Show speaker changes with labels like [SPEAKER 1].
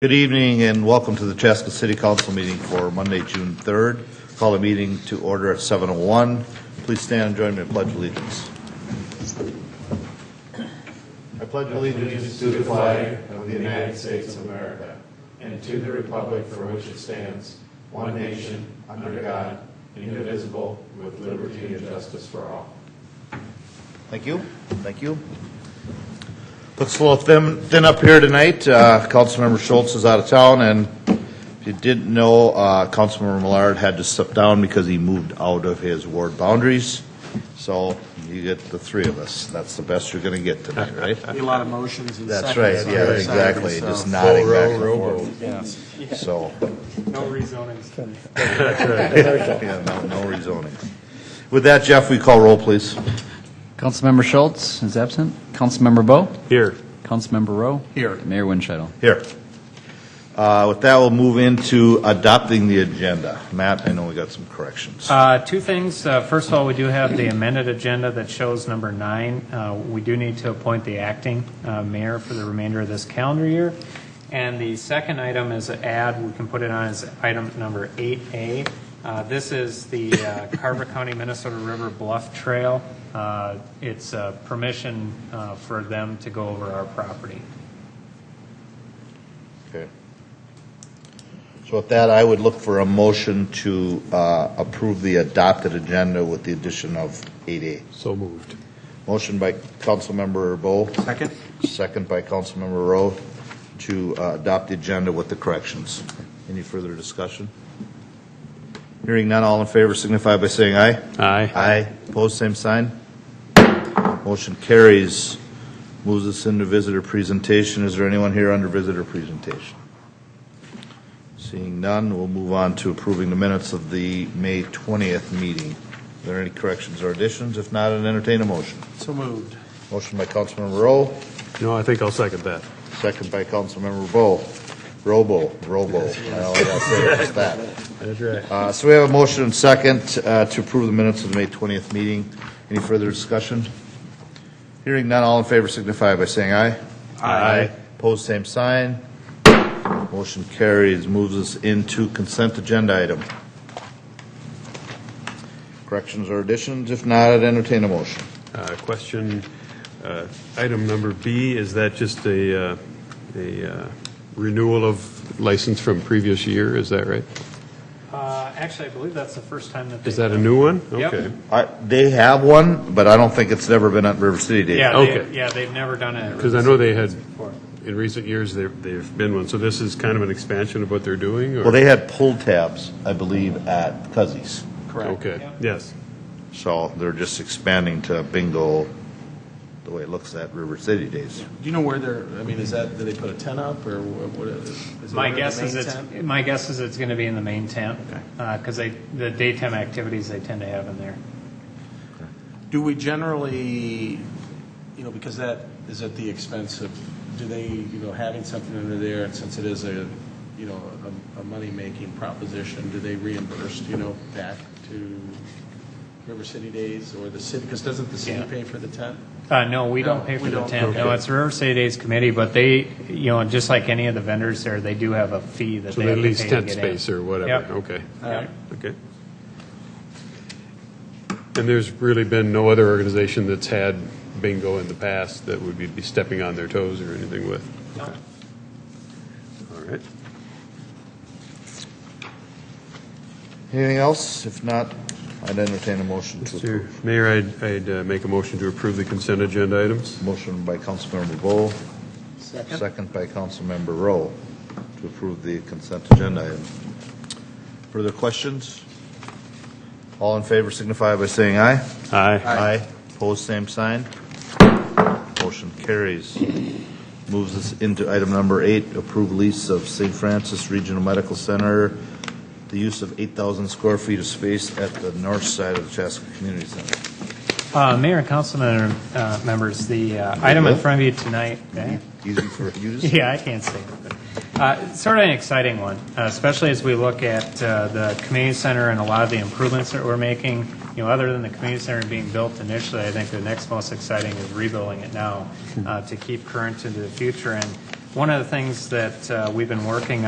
[SPEAKER 1] Good evening and welcome to the Chaska City Council meeting for Monday, June 3rd. Call the meeting to order at 7:01. Please stand and join me in pledge allegiance. I pledge
[SPEAKER 2] allegiance to the flag of the United States of America and to the republic for which it stands, one nation, under God, indivisible, with liberty and justice for all.
[SPEAKER 1] Thank you, thank you. Looks a little thin, thin up here tonight. Uh, Councilmember Schultz is out of town, and if you didn't know, uh, Councilmember Millard had to step down because he moved out of his ward boundaries. So you get the three of us. That's the best you're gonna get tonight, right?
[SPEAKER 3] Be a lot of motions and
[SPEAKER 1] That's
[SPEAKER 3] seconds.
[SPEAKER 1] right,
[SPEAKER 3] on
[SPEAKER 1] yeah,
[SPEAKER 3] the side,
[SPEAKER 1] exactly,
[SPEAKER 3] so-
[SPEAKER 1] just nodding back and forth,
[SPEAKER 3] Yes.
[SPEAKER 1] so,
[SPEAKER 3] No rezonings.
[SPEAKER 1] yeah, no no rezoning. With that, Jeff, we call roll, please.
[SPEAKER 4] Councilmember Schultz is absent. Councilmember Bo.
[SPEAKER 1] Here.
[SPEAKER 4] Councilmember Rowe. Here. Mayor Winchell.
[SPEAKER 1] Here. Uh, With that, we'll move into adopting the agenda. Matt, I know we got some corrections.
[SPEAKER 5] Uh, Two things. Uh, First of all, we do have the amended agenda that shows number nine. Uh, We do need to appoint the acting uh, mayor for the remainder of this calendar year. And the second item is an add, we can put it on as item number 8A. Uh, This is the uh, Carver County Minnesota River Bluff Trail. Uh, It's uh, permission uh, for them to go over our property.
[SPEAKER 1] Okay. So with that, I would look for a motion to uh, approve the adopted agenda with the addition of 8A.
[SPEAKER 2] So moved.
[SPEAKER 1] Motion by Councilmember Bo.
[SPEAKER 3] Second?
[SPEAKER 1] Second by Councilmember Rowe to uh, adopt the agenda with the corrections. Any further discussion? Hearing none, all in favor signify by saying aye.
[SPEAKER 2] Aye.
[SPEAKER 1] Aye. Opposed, same sign. Motion carries. Moves us into visitor presentation. Is there anyone here under visitor presentation? Seeing none, we'll move on to approving the minutes of the May 20th meeting. Are there any corrections or additions? If not, I'd entertain a motion.
[SPEAKER 3] So moved.
[SPEAKER 1] Motion by Councilmember Rowe,
[SPEAKER 2] No, I think I'll second that.
[SPEAKER 1] Second by Councilmember Bo. Robo, Robo. I always say it like that.
[SPEAKER 2] That's right.
[SPEAKER 1] Uh, So we have a motion and second uh, to approve the minutes of the May 20th meeting. Any further discussion? Hearing none, all in favor signify by saying aye. Aye. Pose same sign. Motion carries, moves us into consent agenda item. Corrections or additions? If not, I'd entertain a motion.
[SPEAKER 6] Uh, Question, uh, item number B, is that just a, uh, a uh, renewal of license from previous year, is that right?
[SPEAKER 5] Uh, Actually, I believe that's the first time that they...
[SPEAKER 6] Is that a new one?
[SPEAKER 5] Yep.
[SPEAKER 6] Okay.
[SPEAKER 1] I- They have one, but I don't think it's never been at River City Day.
[SPEAKER 5] Yeah, they-
[SPEAKER 6] Okay.
[SPEAKER 5] yeah, they've never done it.
[SPEAKER 6] Because I know they had,
[SPEAKER 5] Before.
[SPEAKER 6] in recent years, there, there've been one, so this is kind of an expansion of what they're doing, or?
[SPEAKER 1] Well, they had pull tabs, I believe, at Cuzzi's.
[SPEAKER 6] Okay,
[SPEAKER 5] Yep.
[SPEAKER 6] yes.
[SPEAKER 1] So they're just expanding to bingo, the way it looks at River City Days.
[SPEAKER 3] Do you know where they're, I mean, is that, do they put a tent up or what what is? is it
[SPEAKER 5] My
[SPEAKER 3] under the
[SPEAKER 5] guess is
[SPEAKER 3] main
[SPEAKER 5] it's,
[SPEAKER 3] tent?
[SPEAKER 5] my guess is it's going to be in the main tent, because they, the daytime activities they tend to have in there.
[SPEAKER 3] Do we generally, you know, because that is at the expense of, do they, you know, having something under there, and since it is a, you know, a, a money-making proposition, do they reimburse, you know, back to River City Days or the city? Because doesn't the city
[SPEAKER 5] Yeah.
[SPEAKER 3] pay for the tent?
[SPEAKER 5] Uh, no, we
[SPEAKER 3] No,
[SPEAKER 5] don't pay
[SPEAKER 3] we
[SPEAKER 5] for the
[SPEAKER 3] don't.
[SPEAKER 5] tent. No,
[SPEAKER 3] Okay.
[SPEAKER 5] it's River City Days Committee, but they, you know, just like any of the vendors there, they do have a fee that
[SPEAKER 6] So
[SPEAKER 5] they
[SPEAKER 6] they
[SPEAKER 5] have to pay
[SPEAKER 6] lease
[SPEAKER 5] to
[SPEAKER 6] tent
[SPEAKER 5] get in.
[SPEAKER 6] space or
[SPEAKER 5] Yep.
[SPEAKER 6] whatever, okay.
[SPEAKER 5] Yep.
[SPEAKER 6] Okay. And there's really been no other organization that's had bingo in the past that would we be stepping on their toes or anything with? Okay. All right.
[SPEAKER 1] Anything else? If not, I'd entertain a motion to
[SPEAKER 6] Mr.
[SPEAKER 1] approve.
[SPEAKER 6] Mayor, I'd, I'd uh, make a motion to approve the consent agenda items.
[SPEAKER 1] Motion by Councilmember Bo. Second. Second by Councilmember Rowe to approve the consent agenda item. Further questions? All in favor signify by saying aye.
[SPEAKER 6] Aye.
[SPEAKER 1] Aye. Opposed, same sign. Motion carries. Moves us into item number eight, approve lease of St. Francis Regional Medical Center, the use of 8,000 square feet of space at the north side of the Chaska Community Center.
[SPEAKER 5] Uh, Mayor and council member- uh, members, the uh, item in front of you tonight,
[SPEAKER 1] Easy for you to say.
[SPEAKER 5] Yeah, I can't say. that. Uh, Sort of an exciting one, uh, especially as we look at uh, the community center and a lot of the improvements that we're making. You know, other than the community center being built initially, I think the next most exciting is rebuilding it now uh, to keep current into the future. And One of the things that uh, we've been working